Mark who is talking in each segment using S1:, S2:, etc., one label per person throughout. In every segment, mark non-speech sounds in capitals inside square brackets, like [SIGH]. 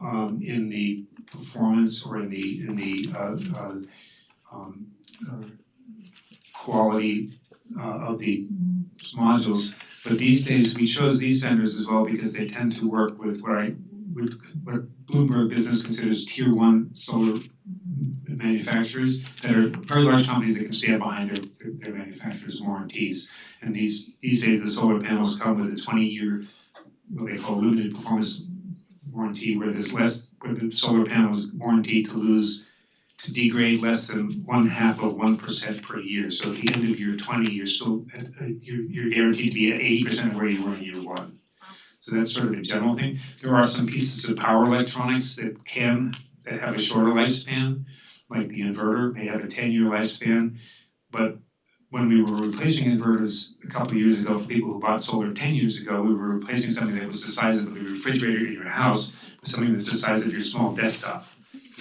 S1: um in the performance or in the in the uh uh um uh quality uh of the modules. But these days, we chose these vendors as well because they tend to work with what I would what Bloomberg Business considers tier one solar manufacturers that are very large companies that can stand behind their their- their manufacturers' warranties. And these these days, the solar panels come with a twenty year, what they call limited performance warranty, where there's less, where the solar panel is warranted to lose to degrade less than one half of one percent per year. So at the end of year twenty, you're still at uh, you're you're guaranteed to be at eighty percent of where you were in year one. So that's sort of a general thing. There are some pieces of power electronics that can that have a shorter lifespan, like the inverter may have a ten year lifespan. But when we were replacing inverters a couple of years ago for people who bought solar ten years ago, we were replacing something that was the size of the refrigerator in your house with something that's the size of your small desktop.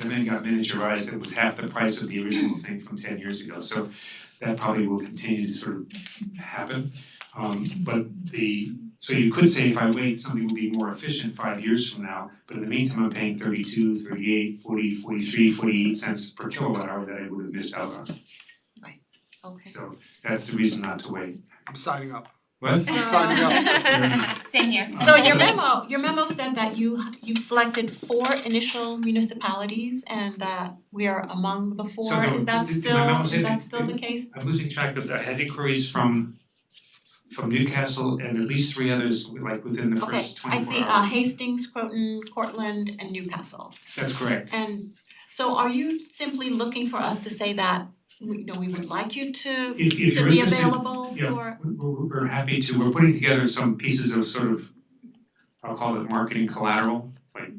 S1: And then got miniaturized, it was half the price of the original thing from ten years ago, so that probably will continue to sort of happen. Um but the, so you could say if I wait, something will be more efficient five years from now, but in the meantime, I'm paying thirty-two, thirty-eight, forty, forty-three, forty-eight cents per kilowatt hour that I would have missed out on.
S2: Okay.
S1: So that's the reason not to wait.
S3: I'm signing up.
S1: What?
S3: I'm signing
S4: [LAUGHS]
S1: up.
S4: Same here.
S2: So your
S1: Um,
S2: memo, your memo said that you you selected four initial municipalities and that we are among the four,
S1: no,
S2: is that
S1: did- did my
S2: still,
S1: memo say
S2: is that
S1: that-
S2: still the case?
S1: I'm losing track of that, I had inquiries from from Newcastle and at least three others like within the first
S2: Okay, I
S1: twenty-four
S2: see
S1: hours.
S2: uh Hastings, Croton, Cortland and Newcastle.
S1: That's correct.
S2: And so are you simply looking for us to say that, you know, we would like you to
S1: If- if
S2: to
S1: you're
S2: be
S1: interested-
S2: available for
S1: yeah. We're- We're we're happy to, we're putting together some pieces of sort of, I'll call it marketing collateral, like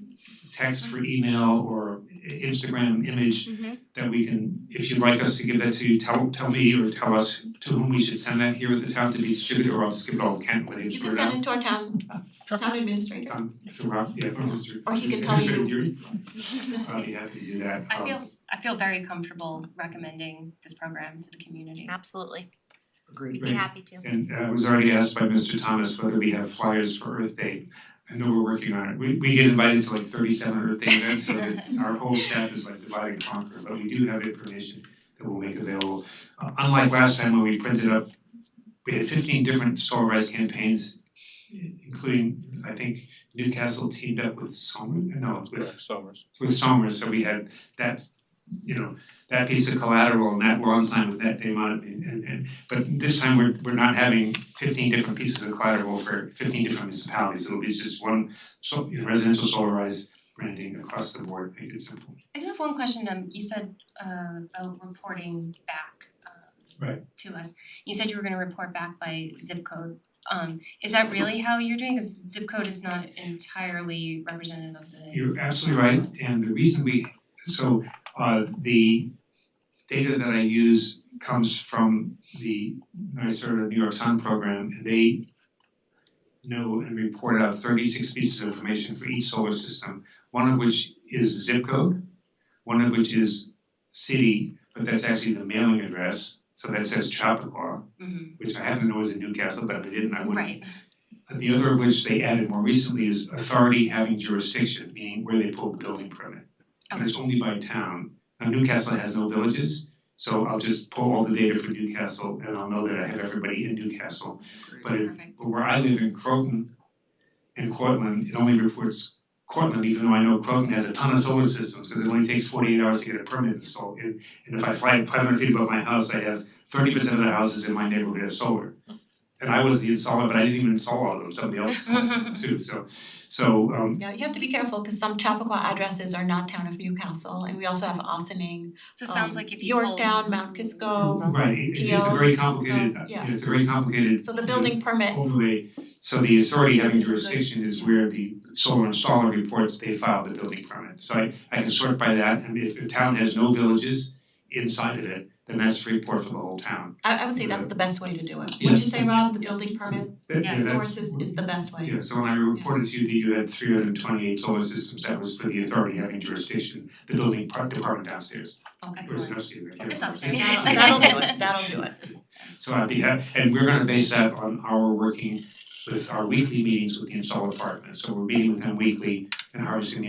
S1: text for email or i- Instagram image
S2: Mm-hmm.
S1: that we can, if you'd like us to give that to you, tell tell me or tell us to whom we should send that here at the town to be distributed, or I'll just give it all to Kent when it's
S2: You can
S1: squared
S2: send
S1: out.
S2: it to our town
S3: Sure.
S2: town
S1: [LAUGHS]
S2: administrator.
S1: Um, to Rob, yeah, or Mr.
S2: Or he can tell you.
S1: Mr. Dury. I'll uh, be happy to do that.
S4: I
S1: Um,
S4: feel I feel very comfortable recommending this program to the community.
S5: Absolutely.
S3: Agreed.
S5: Be
S1: Right.
S5: happy to.
S1: And uh, I was already asked by Mr. Thomas whether we have flyers for Earth Day. I know we're working on it. We we get invited to like thirty-seven Earth Day events, so that our whole staff is like divide and conquer, but we do have information that we'll make available. Uh, Unlike last time when we printed up, we had fifteen different solar rise campaigns, i- including, I think Newcastle teamed up with Somers, no, it's with
S6: Summers.
S1: with Somers, so we had that, you know, that piece of collateral and that lawn sign with that name on it and and and but this time we're we're not having fifteen different pieces of collateral for fifteen different municipalities, it'll be just one so you know, residential solarized branding across the board, make it simple.
S4: I do have one question, um you said uh about reporting back um
S1: Right.
S4: to us. You said you were gonna report back by zip code. Um is that really how you're doing? Cause zip code is not entirely representative of the
S1: You're absolutely right, and the reason we, so uh the data that I use comes from the NYSERDA New York Sun program, and they know and report out thirty-six pieces of information for each solar system, one of which is zip code, one of which is city, but that's actually the mailing address, so that says Chappaqua,
S4: Mhm.
S1: which I happen to know is in Newcastle, but if I didn't, I wouldn't
S4: Right,
S1: Uh, the other of which they added more recently is authority having jurisdiction, meaning where they pulled the building permit. And it's only by town. Now Newcastle has no villages, so I'll just pull all the data for Newcastle and I'll know that I have everybody in Newcastle. But it-
S4: perfect.
S1: but where I live in Croton and Cortland, it only reports Cortland, even though I know Croton has a ton of solar systems, because it only takes forty-eight hours to get a permit installed. And and if I fly five hundred feet above my house, I have thirty percent of the houses in my neighborhood have solar. And I was the installer, but I didn't even install all of them, somebody else installed them too, so so um
S2: Yeah, you have to be careful because some Chappaqua addresses are not town of Newcastle and we also have Ossining
S4: So it sounds
S2: um,
S4: like if you pull
S2: Yorktown, Mount Kisco,
S1: right, it's it's a very
S2: PLs, so,
S1: complicated,
S2: yeah.
S1: it's a very complicated
S2: so the building permit,
S1: overlay, so the authority having jurisdiction is where the solar installer reports they filed the building permit. So I I can sort by that, and if the town has no villages inside of it, then that's the report for the whole town.
S2: I I would say that's the best way to do it. Would you say, Rob, the building permit
S1: That-
S4: Yeah,
S1: yeah, that's-
S2: source is is the best way?
S1: Yeah, so when I reported to you that you had three hundred and twenty-eight solar systems, that was for the authority having jurisdiction, the building par- department downstairs, or is
S2: Okay.
S1: it
S4: Excellent.
S1: upstairs? I can't remember.
S4: It's [LAUGHS] upstairs.
S2: That'll that'll do it, that'll do it.
S1: So I'd be happy, and we're gonna base that on our working with our weekly meetings with the installer department. So we're meeting with them weekly and harvesting the